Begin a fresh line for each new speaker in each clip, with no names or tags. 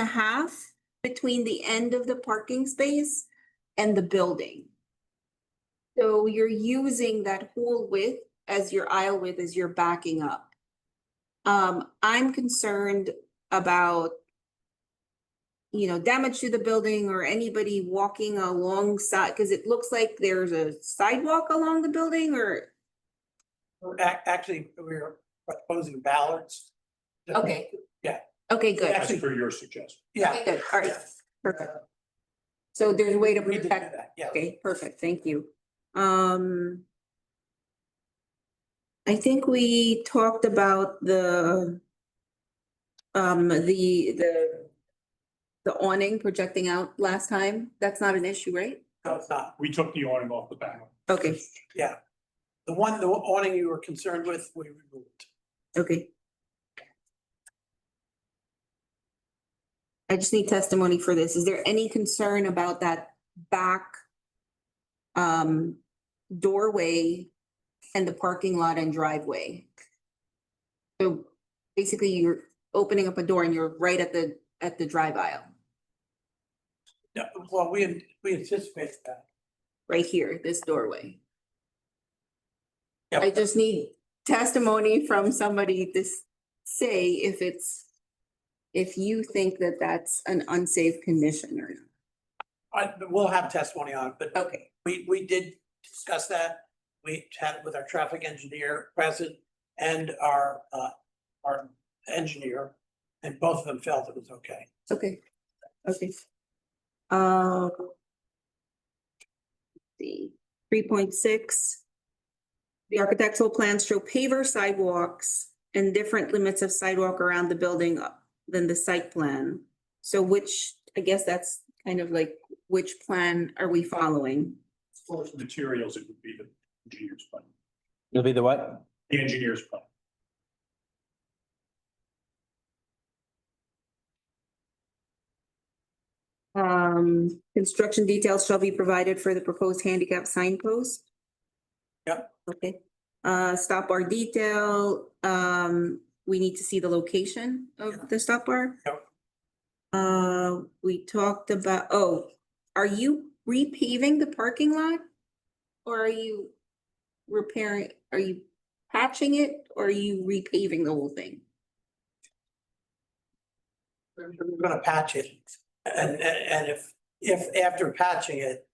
a half between the end of the parking space and the building. So you're using that whole width as your aisle width as you're backing up. Um, I'm concerned about you know, damage to the building or anybody walking alongside, because it looks like there's a sidewalk along the building or,
We're ac- Actually, we're proposing ballards.
okay.
Yeah.
Okay, good.
Actually-
As per your suggestion.
Yeah.
Okay, Good, all right,
yeah.
perfect. So there's a way to
We did do
protect
that, Yeah.
Okay, perfect, thank you. Um. I think we talked about the. Um, the, the. The awning projecting out last time, that's not an issue, right?
No, it's not.
We took the awning off the back.
Okay,
The one, the awning you were concerned with, we removed.
okay. I just need testimony for this, is there any concern about that back? Um, doorway and the parking lot and driveway? So basically, you're opening up a door and you're right at the, at the drive aisle,
No, well, we, an- we anticipated that.
right here, this doorway.
Yep.
I just need testimony from somebody to s- say if it's, if you think that that's an unsafe condition or not.
I, we'll have testimony on it, but
Okay,
we, we did discuss that. We had it with our traffic engineer present and our, uh, our engineer. And both of them felt it was okay.
okay, okay. Um. The three point six. The architectural plans show paver sidewalks and different limits of sidewalk around the building up than the site plan. So which, I guess that's kind of like, which plan are we following?
As far as materials, it would be the engineer's plan,
It'll be the what?
the engineer's plan.
Um, construction details shall be provided for the proposed handicap signpost.
Yep.
Okay, uh, stop bar detail, um, we need to see the location
Yeah.
of the stop bar.
Yep.
Uh, we talked about, oh, are you repaving the parking lot? Or are you repairing, are you patching it, or are you repaving the whole thing?
We're gonna patch it. And, and, and if, if after patching it,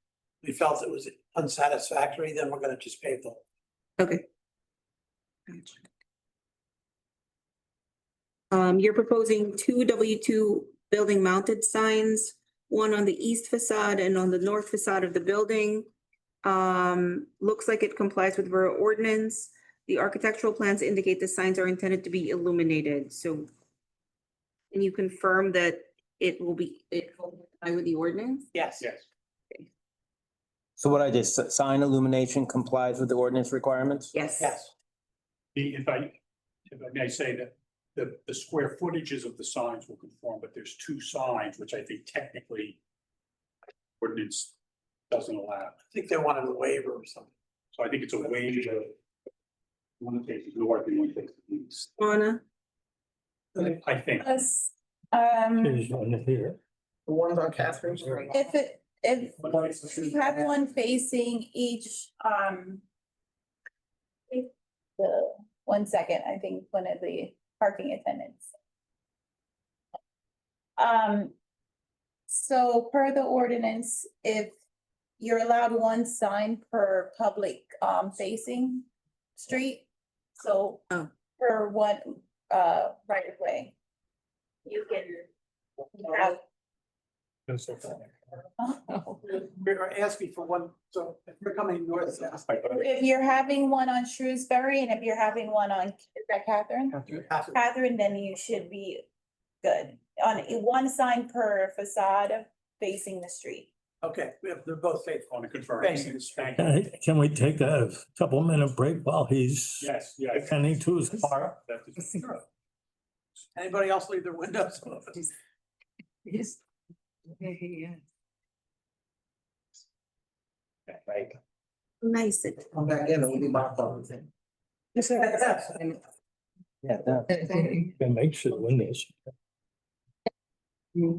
we felt it was unsatisfactory, then we're gonna just pave the.
Um, you're proposing two W two building mounted signs, one on the east facade and on the north facade of the building. Um, looks like it complies with borough ordinance. The architectural plans indicate the signs are intended to be illuminated, so. And you confirm that it will be, it will comply with the ordinance?
Yes.
Yes.
So what I did, s- sign illumination complies with the ordinance requirements?
Yes.
Yes,
The, if I, if I may say that the, the square footages of the signs will conform, but there's two signs, which I think technically ordinance doesn't allow.
I think they wanted a waiver or something.
So I think it's a wage of one takes the north and one takes the east,
Donna?
I think.
Yes, um,
The ones on Catherine's. are-
if it, if
One is the street.
you have one facing each, um. if The, one second, I think one of the parking attendants. Um, so per the ordinance, if you're allowed one sign per public, um, facing street. So
Oh.
per one, uh, right of way. You can have
We are asking for one, so if you're coming north, south,
If you're having one on Shrewsbury and if you're having one on, is that Catherine?
you have to,
Catherine, then you should be good. On one sign per facade facing the street.
okay, we have- they're both safe.
On the confirm.
Thank you.
Thank you.
Okay, Can we take a couple minute break while he's
Yes, yes.
attending to his car?
That is-
Anybody else leave their windows open?
Right.
Nice. it-
Come back in, it'll be my fault.
Yes.
Yeah. that-
It makes the windows.